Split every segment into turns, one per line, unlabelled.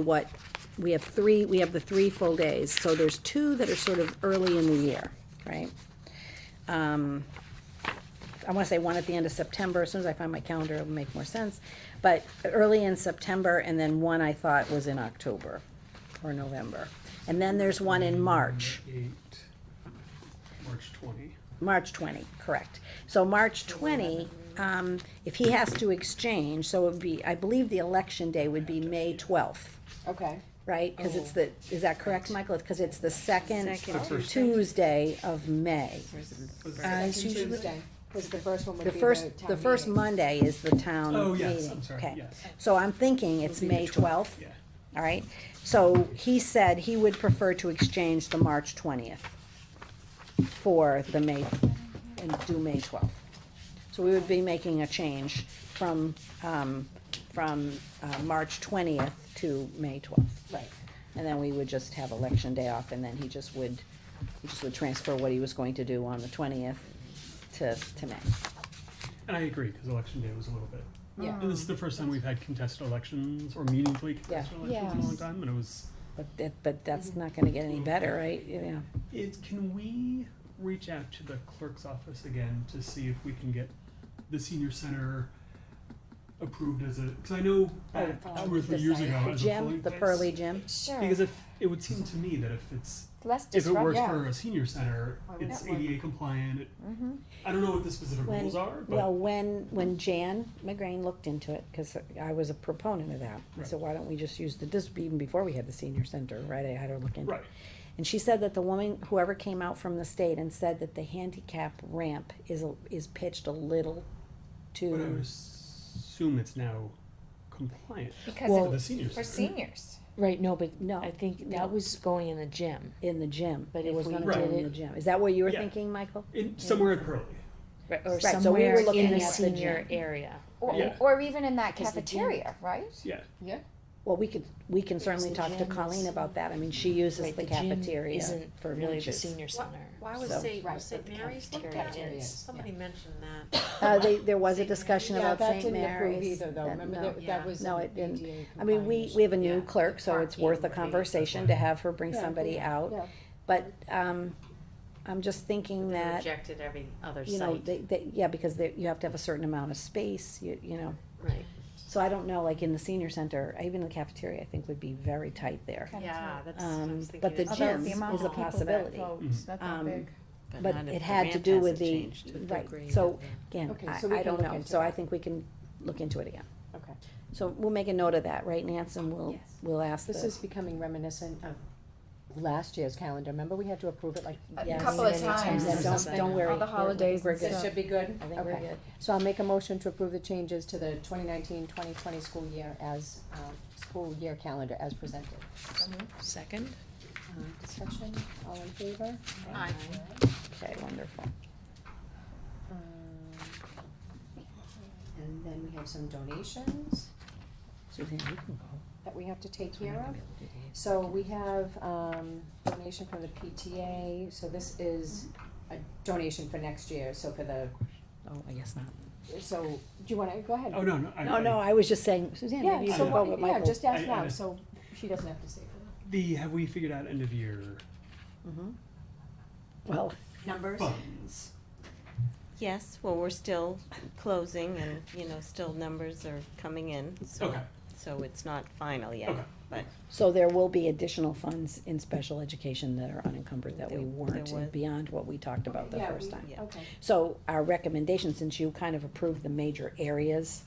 what, we have three, we have the three full days, so there's two that are sort of early in the year, right? Um, I wanna say one at the end of September, as soon as I find my calendar, it'll make more sense, but early in September, and then one I thought was in October or November. And then there's one in March,
Eight, March twenty.
March twenty, correct. So March twenty, um, if he has to exchange, so it would be, I believe the election day would be May twelfth.
Okay.
right? Because
Oh.
it's the, is that correct, Michael? Because it's the second
Second The
first-
Tuesday of May.
Second
it's usually-
Tuesday, because the first one would
The
be the
first,
town
the first
meeting.
Monday is the town meeting.
Oh, yes, I'm sorry,
Okay.
yes.
So I'm thinking it's
It'll be the
May twelfth,
Yeah.
all right? So he said he would prefer to exchange the March twentieth for the May, and do May twelfth. So we would be making a change from, um, from, uh, March twentieth to May twelfth.
Right,
And then we would just have election day off, and then he just would, he just would transfer what he was going to do on the twentieth to, to May.
And I agree, because election day was a little bit,
yeah.
and this is the first time we've had contested elections or meaningfully contested
Yeah.
elections in a long time, and it was,
But that, but that's not gonna get any better, right? Yeah.
it, can we reach out to the clerk's office again to see if we can get the senior center approved as a, because I know back
oh,
two or three years
the
ago
The
as a fully.
gym, the pearly gym,
Sure,
Because if, it would seem to me that if it's,
Less
if it works
yeah.
for a senior center,
Why would
it's
that work? Mm-hmm.
ADA compliant, it- I don't know what the specific
When-
rules are, but.
well, when, when Jan McGrain looked into it, cause I was a proponent of that. I said, why don't we just use the, this would be even before we had the senior center, right? I had her look into it.
Right.
And she said that the woman, whoever came out from the state and said that the handicap ramp is, a- is pitched a little
But I
too.
would assume it's now compliant
Because
for
Well,
the seniors.
for seniors.
Right, no, but no, I think
No.
that was going in the gym.
in the gym, but
But
it
if
was
we
gonna
Right.
go
did
in the
it-
gym. Is that what you were
Yeah.
thinking, Michael?
In, somewhere at Pearly.
Or
so we
somewhere
were
in
looking
the
at the gym.
senior area.
Or,
Yeah.
or even in that
Because the gym-
cafeteria, right?
Yeah.
Well, we could, we can certainly
the
talk to
gym
Colleen
is-
about that. I mean, she uses
Right,
the
gym
cafeteria
Isn't
for
really the
lunches.
senior center.
Why was
So-
St.
Right,
St.
but the
Mary's looked
cafeteria
at?
is,
Somebody mentioned that.
Uh, they, there was a discussion
Yeah,
about
that
St.
didn't approve
Mary's.
either though,
that-
remember
no.
that, that was
No,
an
it didn't.
ADA
I mean, we,
compliant
we have a
Yeah,
new
the
uh,
clerk, so it's worth a
parking, right,
conversation
that's
to
why.
have her bring
Yeah,
somebody
yeah,
out.
yeah.
But, um, I'm just thinking
They
that,
rejected every other
you know,
site.
they, they, yeah, because they, you have to have a certain amount of space, you, you know.
Right,
So I don't know, like in the senior center, even the cafeteria, I think would be very tight there.
Kinda
yeah,
tight.
that's, I
Um,
was thinking.
but the
it's-
Although
gym
the amount
is a
of people that
possibility.
Mhm.
not
Um,
but
But
not if
it
the
had to
ramp
do with
hasn't
the,
changed to the
right,
grade
so,
of the-
again,
Okay,
I,
so we
I
can
don't
look
know,
into
so I
that.
think we can look into it again.
Okay,
So we'll make a note of that, right, Nance, and we'll,
Yes.
we'll ask
this
the,
is becoming reminiscent of last year's calendar, remember we had to approve it like.
Yeah.
Couple of
many
times.
Yeah, don't,
something.
don't worry.
the
we're-
holidays
We're
and
good,
This
stuff.
should be good,
I think we're
okay,
good.
so I'll make a motion to approve the changes to the 2019-2020 school year as, um, school year calendar as presented.
Second?
Um, discussion, all in favor?
Aye.
Okay, wonderful.
Um, And then we have some donations
Suzanne, you can go.
that we have to take care of.
Available today.
So we have, um, donation from the PTA, so this is a donation for next year, so for the,
Oh, I guess not.
so, do you wanna, go ahead.
Oh, no, no. I,
No, no,
I,
I was just saying, Suzanne, maybe you can
Yeah, so
can
go,
go,
what,
but
yeah,
Michael.
just ask
I-
now,
I-
so she doesn't have to say for
the have we figured out end of year
Mm-hmm. Well,
it. Numbers?
funds?
Yes, well, we're still closing and, you know, still numbers are coming in, so,
Okay.
so it's not final yet.
Okay.
But
so there will be additional funds in special education that are unencumbered that we
There-
weren't
there was.
beyond what we talked about the
Yeah,
first
we-
time.
Yeah.
Okay,
So our recommendation, since you kind of approved the major areas,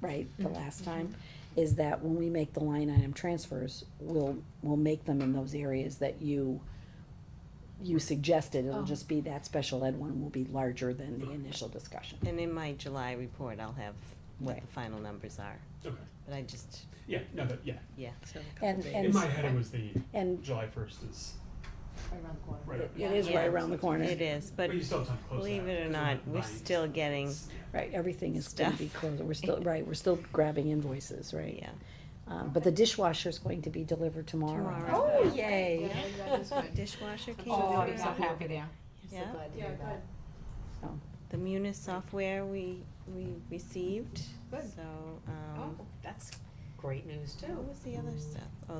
right,
Mm-hmm.
the last time, is that when we make the line item transfers, we'll, we'll make them in those areas that you, you suggested, it'll
Oh.
just be that special ed one will be larger than the initial discussion.
And in my July report, I'll have what
Right.
the final numbers are,
Okay.
but I just,
Yeah, no, but yeah.
yeah, so.
And,
In
and,
my head, it was the
and
July 1st is
right around the corner.
right up.
it is right
Yeah.
around the corner,
It is,
But
but
you still have time to close
believe
that,
it or
because
not,
we're
we're
nine.
still getting,
right, everything is gonna
Stuff.
be closed, we're still, right, we're still grabbing invoices, right?
yeah,
Um, but the dishwasher's going to be delivered
tomorrow.
Oh,
yay. Dishwasher came
Oh,
through,
I'm so happy there.
yeah.
Yeah, good.
The Munis software we, we received,
Good. Oh,
so, um,
that's great news too.
What was the other stuff? Oh,